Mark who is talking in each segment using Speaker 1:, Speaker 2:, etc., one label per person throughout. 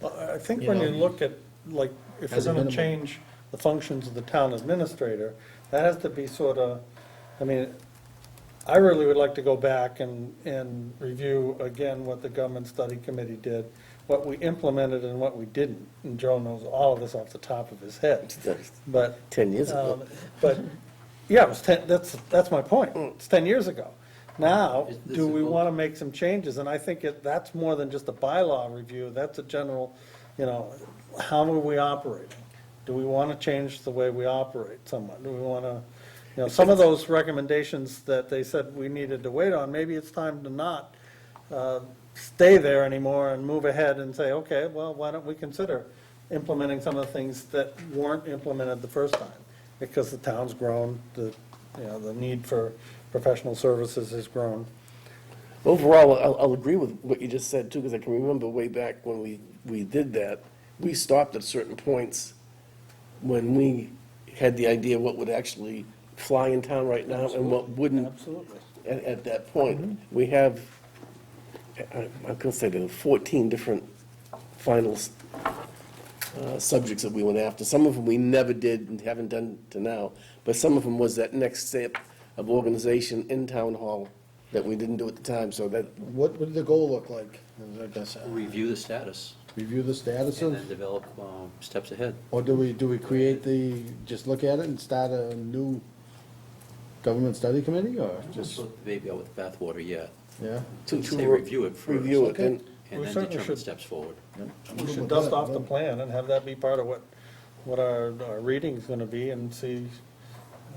Speaker 1: Well, I think
Speaker 2: You
Speaker 1: when you
Speaker 2: know?
Speaker 1: look at, like, if you're
Speaker 2: As a
Speaker 1: gonna
Speaker 2: minimum.
Speaker 1: change the functions of the town administrator, that has to be sort of, I mean, I really would like to go back and, and review again what the government study committee did, what we implemented and what we didn't, and Joe knows all of this off the top of his head, but.
Speaker 3: 10 years ago.
Speaker 1: um, But, yeah, it was ten, that's, that's my point, it's ten years ago. Now,
Speaker 2: Is this
Speaker 1: do
Speaker 2: a
Speaker 1: we
Speaker 2: book?
Speaker 1: want to make some changes? And I think it, that's more than just a bylaw review, that's a general, you know, how are we operating? Do we want to change the way we operate somewhat? Do we want to, you know, some of those recommendations that they said we needed to wait on, maybe it's time to not uh, stay there anymore and move ahead and say, okay, well, why don't we consider implementing some of the things that weren't implemented the first time? Because the town's grown, the, you know, the need for professional services has grown.
Speaker 3: Overall, I'll, I'll agree with what you just said too, because I can remember way back when we, we did that, we stopped at certain points when we had the idea what would actually fly in town right now and what wouldn't
Speaker 1: Absolutely. Mm-hmm.
Speaker 3: at, at that point. We have, I- I'm gonna say there are 14 different finals, uh, subjects that we went after. Some of them we never did and haven't done to now, but some of them was that next step of organization in town hall that we didn't do at the time, so that,
Speaker 4: What would the goal look like? I guess, uh,
Speaker 2: Review the status
Speaker 4: review the status
Speaker 2: and
Speaker 4: of,
Speaker 2: then develop um, steps ahead.
Speaker 4: or do we, do we create the, just look at it and start a new government study committee, or
Speaker 2: Just
Speaker 4: just,
Speaker 2: put the baby out with the bathwater yet.
Speaker 4: yeah?
Speaker 3: to, to.
Speaker 2: Say review it first.
Speaker 3: Review it, and,
Speaker 2: And
Speaker 1: We
Speaker 2: then
Speaker 1: certainly
Speaker 2: determine
Speaker 1: should.
Speaker 2: steps forward.
Speaker 1: We should dust off the plan and have that be part of what, what our, our reading's gonna be and see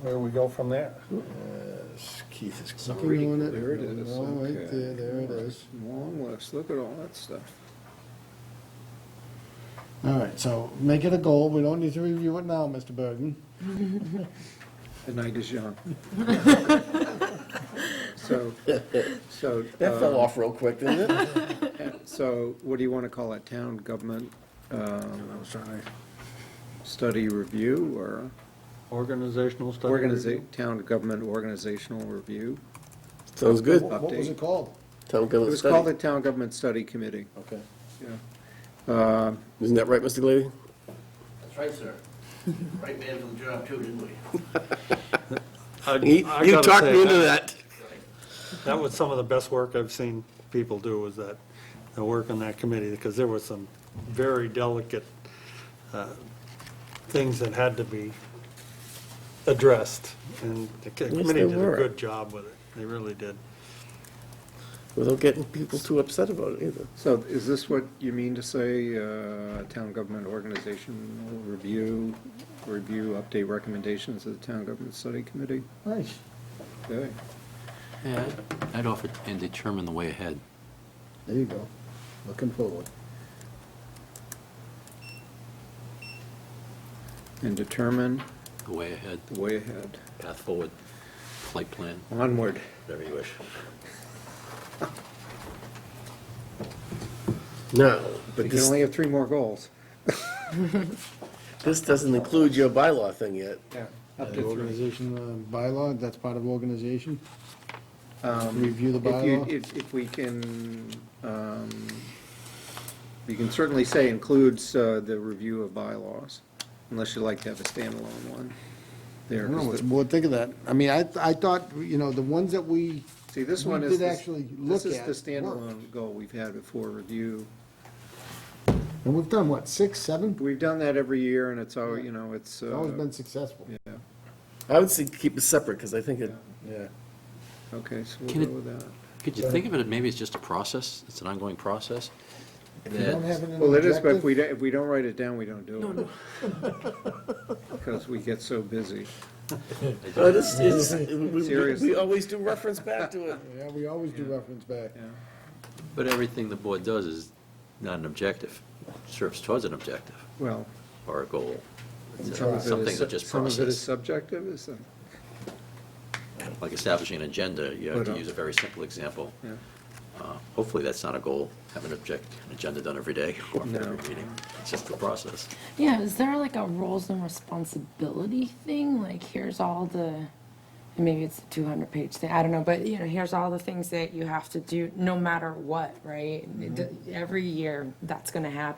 Speaker 1: where we go from there.
Speaker 4: Yes, Uh, Keith is
Speaker 2: Some
Speaker 4: clicking
Speaker 2: reading.
Speaker 4: on it.
Speaker 5: There it is,
Speaker 4: No, right
Speaker 5: okay.
Speaker 4: there, there it is.
Speaker 5: Long list, look at all that stuff.
Speaker 4: All right, so make it a goal. We don't need to review it now, Mr. Bergen.
Speaker 5: The night is young. So, so,
Speaker 3: that fell
Speaker 5: um,
Speaker 3: off real quick, didn't it?
Speaker 5: so what do you want to call it, town government um, study review or
Speaker 1: Organizational study.
Speaker 5: organiza, town government organizational review?
Speaker 3: Sounds good.
Speaker 4: What what was it
Speaker 5: Update.
Speaker 4: called?
Speaker 3: Town
Speaker 5: It
Speaker 3: government
Speaker 5: was called the
Speaker 3: study.
Speaker 5: Town Government Study Committee.
Speaker 4: Okay.
Speaker 3: Isn't that right, Mr. Glady?
Speaker 6: That's right, sir. Right man from the job too, didn't we?
Speaker 3: You you talked me into that.
Speaker 1: That was some of the best work I've seen people do, was that, the work on that committee, because there were some very delicate uh, things that had to be addressed, and the co-
Speaker 3: Yes,
Speaker 1: committee
Speaker 3: they
Speaker 1: did a
Speaker 3: were.
Speaker 1: good job with it, they really did.
Speaker 3: Without getting people too upset about it either.
Speaker 5: So is this what you mean to say, uh, town government organizational review, review, update recommendations of the Town Government Study Committee?
Speaker 4: Nice.
Speaker 5: Okay.
Speaker 2: Yeah, I'd offer and determine the way ahead.
Speaker 4: There you go. Looking forward.
Speaker 5: And determine
Speaker 2: The way ahead,
Speaker 5: the way ahead.
Speaker 2: path forward, flight plan,
Speaker 5: Onward.
Speaker 2: whatever you wish.
Speaker 3: No,
Speaker 5: We
Speaker 3: but
Speaker 5: can
Speaker 3: this,
Speaker 5: only have three more goals.
Speaker 3: this doesn't include your bylaw thing yet.
Speaker 5: Yeah. Up
Speaker 4: The
Speaker 5: to three.
Speaker 4: organization uh, bylaw, that's part of organization?
Speaker 5: Um,
Speaker 4: Review the
Speaker 5: If you,
Speaker 4: bylaw?
Speaker 5: if, if we can, um, you can certainly say includes, uh, the review of bylaws, unless you'd like to have a standalone one. There,
Speaker 4: I don't know,
Speaker 5: 'cause
Speaker 4: what-
Speaker 5: the-
Speaker 4: well, think of that. I mean, I, I thought, you know, the ones that we,
Speaker 5: see, this
Speaker 4: we
Speaker 5: one is.
Speaker 4: did
Speaker 5: this-
Speaker 4: actually look at
Speaker 5: This is the standalone
Speaker 4: worked.
Speaker 5: goal we've had before, review.
Speaker 4: and we've done, what, six, seven?
Speaker 5: We've done that every year, and it's always, you know, it's,
Speaker 4: It's always
Speaker 5: uh,
Speaker 4: been successful.
Speaker 5: yeah,
Speaker 3: I would say keep it separate, because I think it,
Speaker 4: Yeah.
Speaker 5: okay, so
Speaker 2: Can
Speaker 5: we'll
Speaker 2: it-
Speaker 5: go with that.
Speaker 2: Could you think of it, maybe it's just a process, it's an ongoing process?
Speaker 4: If you don't
Speaker 2: that-
Speaker 4: have it in an
Speaker 5: Well, it is, but if
Speaker 4: objective-
Speaker 5: we, don't- if we don't write it down, we don't do it. Because we get so busy.
Speaker 3: but it's, it's, oh, we- we,
Speaker 5: Seriously.
Speaker 3: we always do reference back to it.
Speaker 4: Yeah, we always do reference back.
Speaker 5: Yeah.
Speaker 2: But everything the board does is not an objective, serves towards an objective
Speaker 5: Well,
Speaker 2: or a goal. It's, uh,
Speaker 5: some of it
Speaker 2: Something
Speaker 5: is,
Speaker 2: that just
Speaker 5: some of it is
Speaker 2: process,
Speaker 5: subjective, is it?
Speaker 2: like establishing an agenda, you have
Speaker 5: Put
Speaker 2: to
Speaker 5: up.
Speaker 2: use a very simple example.
Speaker 5: Yeah.
Speaker 2: Uh, Hopefully, that's not a goal, have an object, an agenda done every day or
Speaker 5: No.
Speaker 2: every meeting. It's just the process.
Speaker 7: Yeah, is there like a roles and responsibility thing? Like here's all the, maybe it's a two hundred page thing, I don't know, but you know, here's all the things that you have to do, no matter what, right? It- Every year, that's gonna happen.